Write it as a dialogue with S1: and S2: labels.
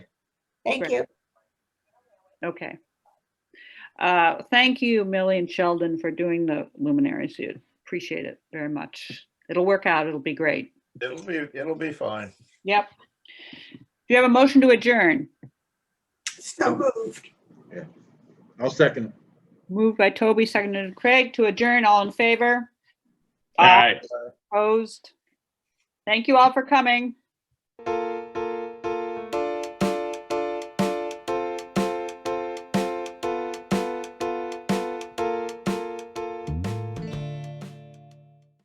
S1: Thank
S2: Great.
S1: you.
S2: Okay. Uh, Thank you, Millie and Sheldon, for doing the luminaries. You Appreciate it very much. It'll work out. It'll be great.
S3: It'll be, it'll be fine.
S2: Yep. Do you have a motion to adjourn?
S1: So moved.
S4: I'll second.
S2: Moved by Toby, seconded by Craig to adjourn. All in favor?
S5: All right.
S2: Opposed? Thank you all for coming.